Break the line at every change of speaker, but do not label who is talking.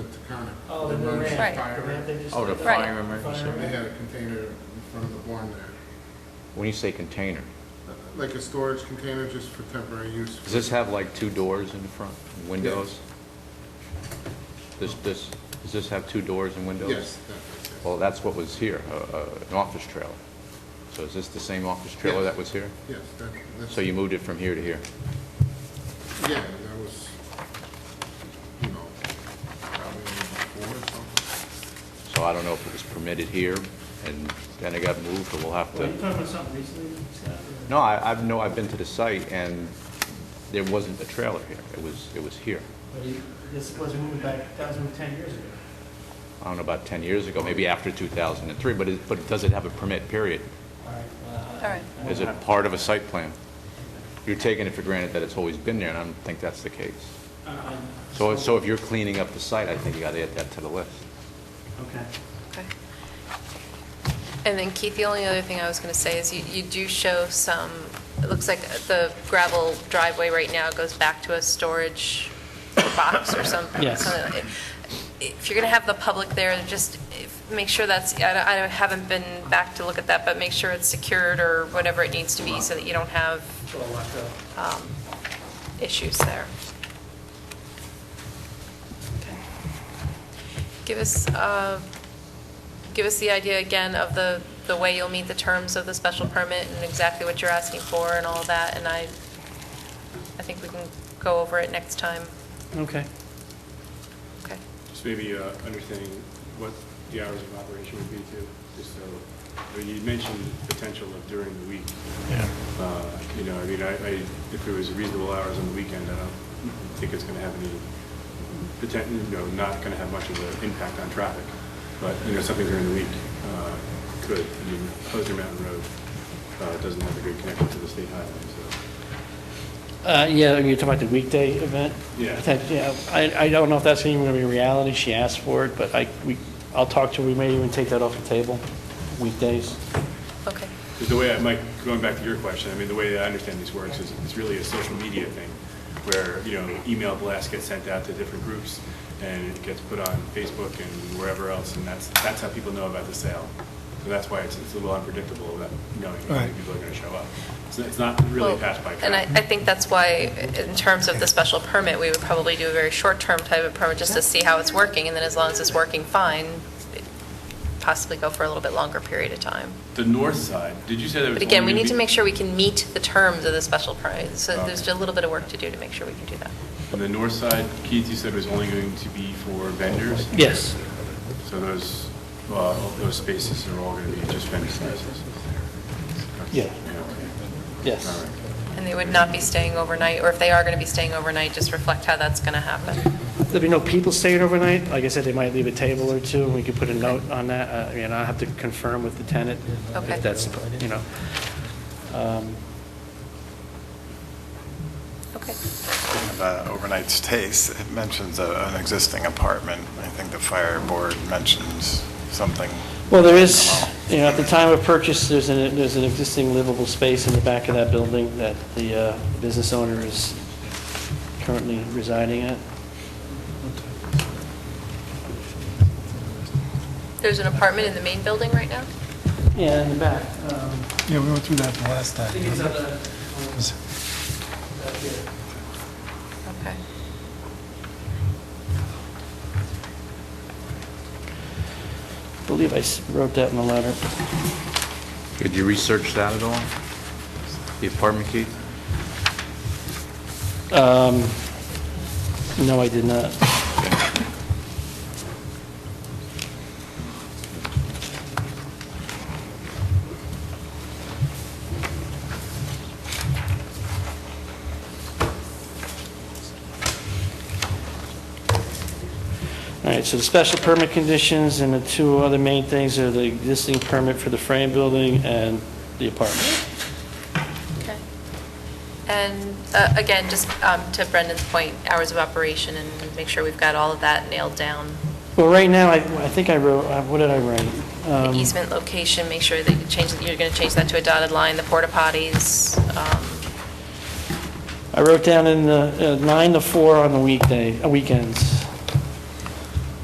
the
Oh, the
Marine
Marine
Right.
Fire.
They just-
Oh, the
Right.
fire emergency.
They had a container in front of the barn there,
When you say container,
like a storage container just for temporary use.
does this have like two doors in the front, windows? This, this, does this have two doors and windows?
Yes, that- that's it.
Well, that's what was here, a- a- an office trailer. So is this the same office trailer
Yes.
that was here?
Yes, that- that's.
So you moved it from here to here?
Yeah, and that was, you know, probably four or something.
So I don't know if it was permitted here, and then it got moved, but we'll have
Well, you
to...
talking about something recently, Scott?
No, I, I've, no, I've been to the site, and there wasn't a trailer here. It was, it was here.
But he- This wasn't moved back, that was moved 10 years ago.
I don't know, about 10 years ago, maybe after 2003, but it, but does it have a permit period?
All right.
All right.
Is it part of a site plan? You're taking it for granted that it's always been there, and I don't think that's the case. So, so if you're cleaning up the site, I think you gotta add that to the list.
Okay.
Okay. And then Keith, the only other thing I was going to say is you you do show some, it looks like the gravel driveway right now goes back to a storage box or something.
Yes.
something like- If you're going to have the public there, just if- make sure that's, I don't- I don't- haven't been back to look at that, but make sure it's secured or whatever it needs to be so that you don't have
So I'll lock up.
um, issues there. Okay. Give us, uh, give us the idea again of the, the way you'll meet the terms of the special permit and exactly what you're asking for and all of that, and I, I think we can go over it next time.
Okay.
Okay,
Just maybe uh, understanding what the hours of operation would be too, just so, I mean, you mentioned potential of during the week.
Yeah.
Uh, You know, I mean, I, I- if it was reasonable hours on the weekend, I don't think it's going to have any, poten- you know, not going to have much of an impact on traffic. But, you know, something during the week uh, could, I mean, Hosner Mountain Road uh, doesn't have a good connection to the state highway, so.
Uh, Yeah, you're talking about the weekday event?
Yeah.
Potent- Yeah, I, I don't know if that's even going to be reality, she asked for it, but I, we, I'll talk to her, we may even take that off the table, weekdays.
okay,
Because the way, I- Mike, going back to your question, I mean, the way I understand this works is it's really a social media thing where, you know, email blasts get sent out to different groups and it gets put on Facebook and wherever else, and that's, that's how people know about the sale. So that's why it's, it's a little unpredictable that, knowing if people are going to show up. So it's not really
Well,
passed by.
And I,
traffic.
I think that's why, in terms of the special permit, we would probably do a very short-term type of permit, just to see how it's working, and then as long as it's working fine, possibly go for a little bit longer period of time.
The north side, did you say that was?
But again, we
only gonna
need to
be-
make sure we can meet the terms of the special permit, so
Okay.
there's a little bit of work to do to make sure we can do that.
And the north side, Keith, you said was only going to be for vendors?
Yes.
So those, well, those spaces are all going to be just vendor spaces?
Yeah.
okay. All
Yes.
right.
And they would not be staying overnight, or if they are going to be staying overnight, just reflect how that's going to happen.
There'll be no people staying overnight, like I said, they might leave a table or two, and we could put a note on that, Uh, I mean, I'll have to confirm with the tenant.
Okay.
If that's, you know. Um,
Okay.
Speaking about overnight stays, it mentions a- an existing apartment. I think the fire board mentions something.
Well, there is, you know, at the time of purchase, there's an, there's an existing livable space in the back of that building that the uh, business owner is currently residing at.
There's an apartment in the main building right now?
Yeah, in the back.
Yeah, we went through that the last time.
um, I think it's on the,
Because
back here.
Okay.
I believe I s- wrote that in the letter.
Did you research that at all? The apartment key?
Um, No, I did not. All right, so the special permit conditions and the two other main things are the existing permit for the frame building and the apartment.
Okay. And uh, again, just um, to Brendan's point, hours of operation and make sure we've got all of that nailed down.
Well, right now, I I think I wrote, uh, what did I write?
The
Um,
Easement location, make sure that you change, you're going to change that to a dotted line, the porta potties. um,
I wrote down in the, uh, nine to four on the weekday, uh, weekends.